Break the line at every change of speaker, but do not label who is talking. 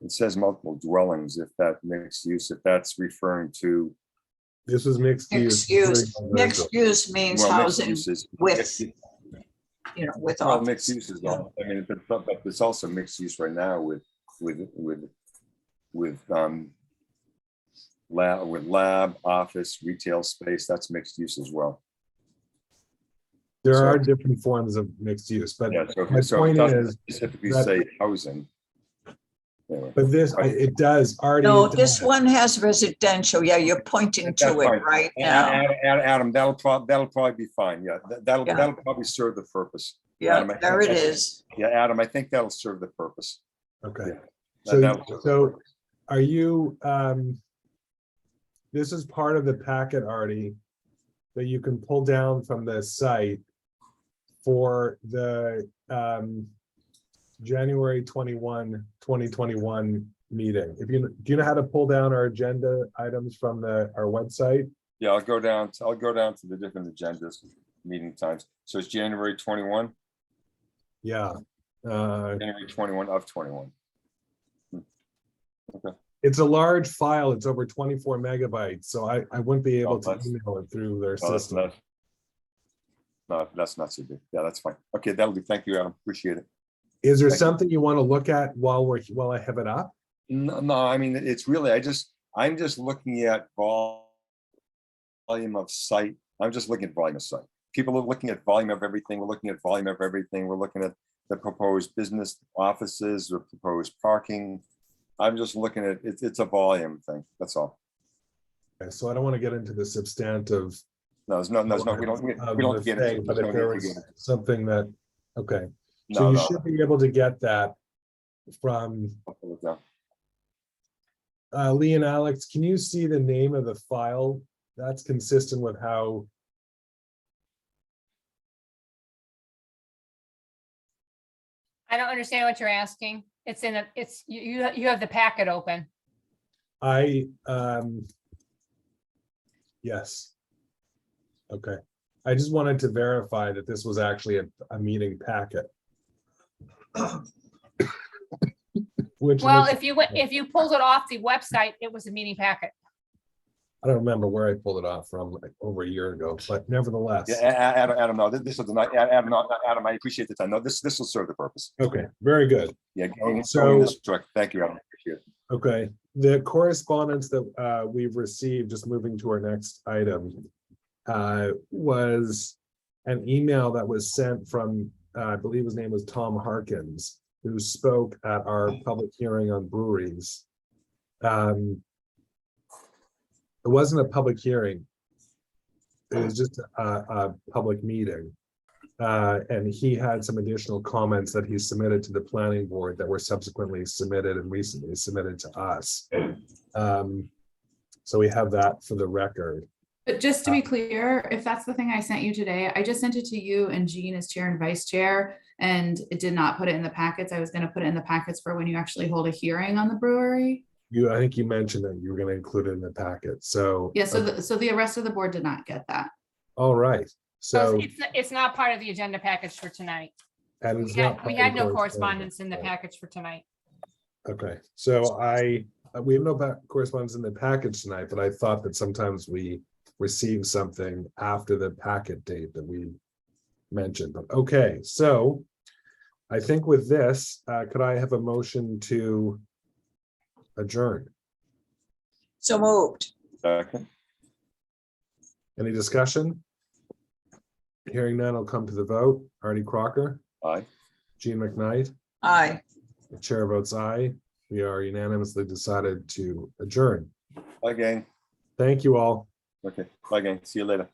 It says multiple dwellings, if that mixed use, if that's referring to.
This is mixed use.
Mixed use, mixed use means
well, mixed
housing
uses-
with, you know, with
Well,
all,
mixed uses, though. I mean, but, but but it's also mixed use right now with, with, with, with, um, lab, with lab, office, retail space, that's mixed use as well.
There are different forms of mixed use, but,
Yeah, so,
My
so it
point
doesn't
is
specifically
that-
say housing. Anyway,
but this, I- it does already.
no, this
does.
one has residential. Yeah, you're pointing
That's
to it
fine.
right now.
Ad- Ad- Adam, that'll prob, that'll probably be fine, yeah, that- that'll,
Yeah.
that'll probably serve the purpose.
Yeah,
Adam, I-
there it is.
Yeah, Adam, I think that'll serve the purpose.
Okay.
Yeah. That-
So,
that'll serve the
so
purpose.
are you, um, this is part of the packet already that you can pull down from the site for the, um, January 21, 2021 meeting. If you, do you know how to pull down our agenda items from the, our website?
Yeah, I'll go down, to- I'll go down to the different agendas, meeting times, so it's January twenty-one,
Yeah. Uh,
January twenty-one of twenty-one.
It's a large file. It's over twenty-four megabytes, so I, I wouldn't be
Oh,
able to
that's-
email it through their
No, Oh, that's
system.
not. No, that's not so big, yeah, that's fine, okay, that'll do, thank you, Adam, appreciate it.
Is there
Thank you.
something you want to look at while we're, while I have it up?
No, no, I mean, it's really, I just, I'm just looking at vol. Volume of site, I'm just looking at volume of site. People are looking at volume of everything, we're looking at volume of everything, we're looking at the proposed business offices, the proposed parking. I'm just looking at, it's, it's a volume thing, that's all.
Okay, So I don't want to get into the substantive.
No, there's no, there's no, we don't, we
of
we don't
the
get into
thing,
it.
But
There's
if
no
there
need to
is
get into it.
something that, okay, so
No,
you
no.
should be able to get that from,
I'll pull it down.
uh, Lee and Alex, can you see the name of the file? That's consistent with how
I don't understand what you're asking. It's in a, it's, you, you, you have the packet open.
I, um, yes. Okay, I just wanted to verify that this was actually a, a meeting packet. Which,
Well,
looks-
if you went, if you pulled it off the website, it was a meeting packet.
I don't remember where I pulled it off from, like, over a year ago, but nevertheless,
Yeah, A- A- Adam, Adam, no, this is, the night- A- Adam, no, Adam, I appreciate the time. No, this, this will serve the purpose.
okay, very good.
Yeah. going-
Um, So-
going this direct. Thank you, Adam. Appreciate it.
Okay, the correspondence that uh we've received, just moving to our next item. Uh, was an email that was sent from, uh, I believe his name was Tom Harkins, who spoke at our public hearing on breweries. Um. It wasn't a public hearing. It was just a a public meeting. Uh, and he had some additional comments that he submitted to the planning board that were subsequently submitted and recently submitted to us. Um, so we have that for the record.
But just to be clear, if that's the thing I sent you today, I just sent it to you and Jean as chair and vice chair. And it did not put it in the packets. I was gonna put it in the packets for when you actually hold a hearing on the brewery.
You, I think you mentioned that you were gonna include it in the packet, so.
Yeah, so the, so the rest of the board did not get that.
All right,
So
so.
it's, it's- it's not part of the agenda package for tonight.
and
We
it's
had,
not
we had no
public
correspondence in the
right.
package for tonight.
Okay, so I, uh, we have no pa- correspondence in the package tonight, but I thought that sometimes we receive something after the packet date that we mentioned, but okay, so I think with this, uh, could I have a motion to adjourn?
So moved.
Second.
Any discussion? Hearing none, I'll come to the vote. Artie Crocker,
Aye.
Gene McKnight,
Aye.
the chair votes aye. We are unanimously decided to adjourn.
Bye, gang.
Thank you all.
Okay, bye, gang. See you later.